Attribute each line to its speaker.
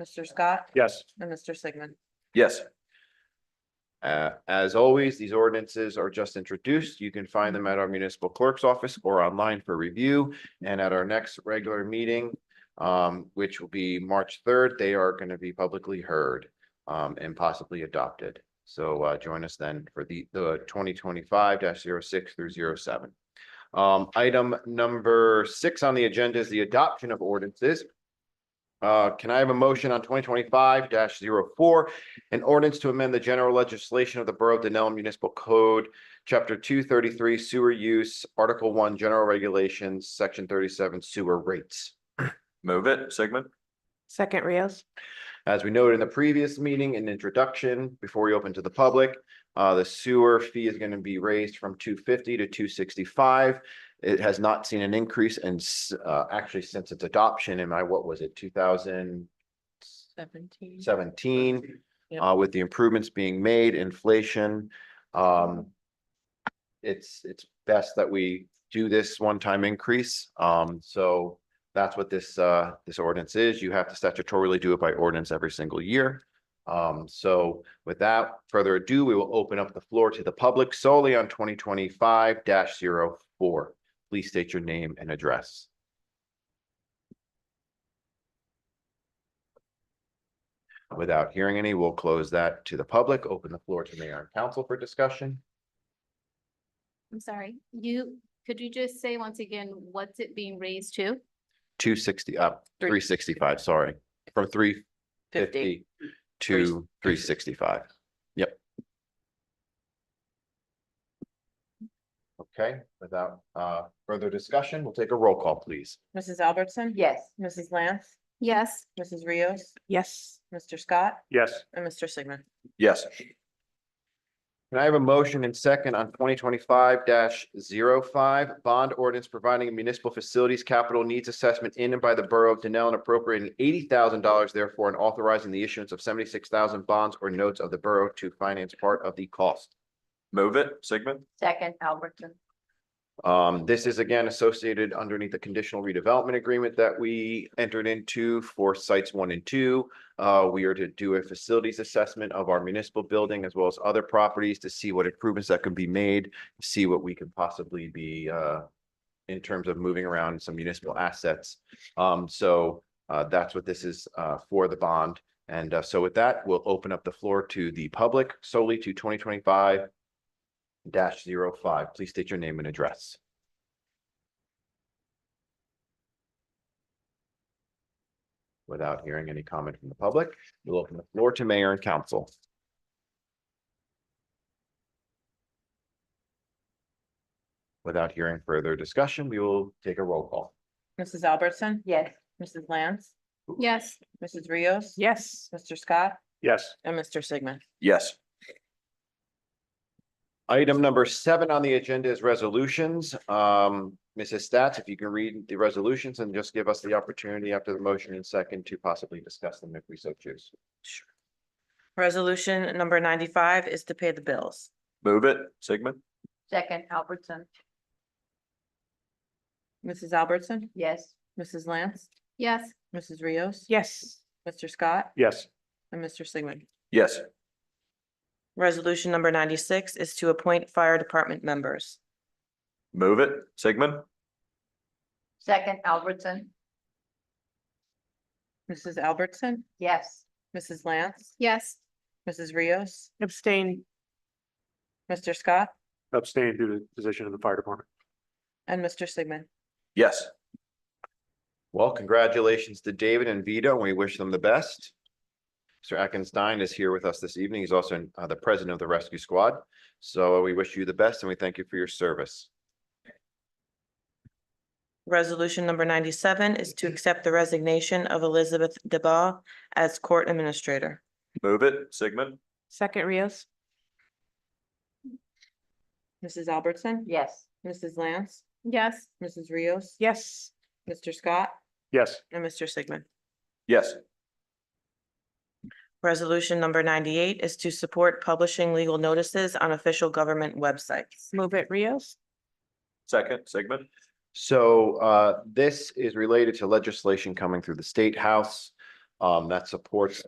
Speaker 1: Mr. Scott
Speaker 2: Yes.
Speaker 1: and Mr. Sigmund.
Speaker 3: Yes. Uh, as always, these ordinances are just introduced. You can find them at our municipal clerk's office or online for review. And at our next regular meeting, um, which will be March third, they are going to be publicly heard um, and possibly adopted. So, uh, join us then for the, the twenty twenty-five 6 through 07. Um, item number six on the agenda is the adoption of ordinances. Uh, can I have a motion on twenty twenty-five 4 an ordinance to amend the general legislation of the Borough of Denell Municipal Code, Chapter two thirty-three Sewer Use, Article one General Regulations, Section thirty-seven Sewer Rates.
Speaker 2: Move it, Sigmund?
Speaker 4: Second Rios.
Speaker 3: As we noted in the previous meeting and introduction, before we open to the public, uh, the sewer fee is going to be raised from two fifty to two sixty-five. It has not seen an increase and, uh, actually since its adoption in my, what was it, two thousand
Speaker 1: Seventeen.
Speaker 3: seventeen,
Speaker 1: Yep.
Speaker 3: uh, with the improvements being made, inflation, um, it's, it's best that we do this one-time increase. Um, so that's what this, uh, this ordinance is. You have to statutorily do it by ordinance every single year. Um, so without further ado, we will open up the floor to the public solely on twenty twenty-five 4 Please state your name and address. Without hearing any, we'll close that to the public, open the floor to mayor and council for discussion.
Speaker 5: I'm sorry, you, could you just say once again, what's it being raised to?
Speaker 3: Two sixty up,
Speaker 1: Three-
Speaker 3: three sixty-five, sorry, from three
Speaker 1: Fifty.
Speaker 3: fifty to three sixty-five. Yep. Okay, without uh further discussion, we'll take a roll call, please.
Speaker 1: Mrs. Albertson?
Speaker 4: Yes.
Speaker 1: Mrs. Lance,
Speaker 5: Yes,
Speaker 1: Mrs. Rios,
Speaker 4: Yes.
Speaker 1: Mr. Scott
Speaker 2: Yes.
Speaker 1: and Mr. Sigmund.
Speaker 2: Yes.
Speaker 3: Can I have a motion and second on twenty twenty-five 5 bond ordinance providing a municipal facilities capital needs assessment in and by the Borough of Denell and appropriating eighty thousand dollars therefore and authorizing the issuance of seventy-six thousand bonds or notes of the borough to finance part of the cost.
Speaker 2: Move it, Sigmund?
Speaker 4: Second Albertson.
Speaker 3: Um, this is again associated underneath the conditional redevelopment agreement that we entered into for sites one and two. Uh, we are to do a facilities assessment of our municipal building as well as other properties to see what improvements that can be made, see what we could possibly be, uh, in terms of moving around some municipal assets. Um, so, uh, that's what this is, uh, for the bond. And, uh, so with that, we'll open up the floor to the public solely to twenty twenty-five dash zero five. Please state your name and address. Without hearing any comment from the public, we'll open the floor to mayor and council. Without hearing further discussion, we will take a roll call.
Speaker 1: Mrs. Albertson?
Speaker 4: Yes.
Speaker 1: Mrs. Lance,
Speaker 5: yes,
Speaker 1: Mrs. Rios?
Speaker 4: Yes.
Speaker 1: Mr. Scott
Speaker 2: Yes.
Speaker 1: and Mr. Sigmund.
Speaker 2: Yes.
Speaker 3: Item number seven on the agenda is resolutions. Um, Mrs. Stats, if you can read the resolutions and just give us the opportunity after the motion and second to possibly discuss them if we so choose.
Speaker 1: Resolution number ninety-five is to pay the bills.
Speaker 2: Move it, Sigmund?
Speaker 4: Second Albertson.
Speaker 1: Mrs. Albertson?
Speaker 4: Yes.
Speaker 1: Mrs. Lance,
Speaker 5: yes,
Speaker 1: Mrs. Rios?
Speaker 4: Yes.
Speaker 1: Mr. Scott
Speaker 2: Yes.
Speaker 1: and Mr. Sigmund.
Speaker 2: Yes.
Speaker 1: Resolution number ninety-six is to appoint fire department members.
Speaker 2: Move it, Sigmund?
Speaker 4: Second Albertson.
Speaker 1: Mrs. Albertson,
Speaker 4: Yes.
Speaker 1: Mrs. Lance,
Speaker 5: yes,
Speaker 1: Mrs. Rios,
Speaker 4: Abstain.
Speaker 1: Mr. Scott
Speaker 6: abstain due to the position in the fire department.
Speaker 1: and Mr. Sigmund.
Speaker 2: Yes.
Speaker 3: Well, congratulations to David and Vito. and We wish them the best. Mr. Atkinsstein is here with us this evening. He's also uh, the president of the rescue squad. So we wish you the best and we thank you for your service.
Speaker 1: Resolution number ninety-seven is to accept the resignation of Elizabeth DeBaugh as court administrator.
Speaker 2: Move it, Sigmund?
Speaker 4: Second Rios.
Speaker 1: Mrs. Albertson,
Speaker 4: Yes.
Speaker 1: Mrs. Lance,
Speaker 5: yes,
Speaker 1: Mrs. Rios,
Speaker 4: Yes.
Speaker 1: Mr. Scott
Speaker 6: Yes,
Speaker 1: and Mr. Sigmund.
Speaker 2: Yes.
Speaker 1: Resolution number ninety-eight is to support publishing legal notices on official government websites.
Speaker 4: Move it Rios.
Speaker 2: Second, Sigmund?
Speaker 3: So uh, this is related to legislation coming through the State House. um, that supports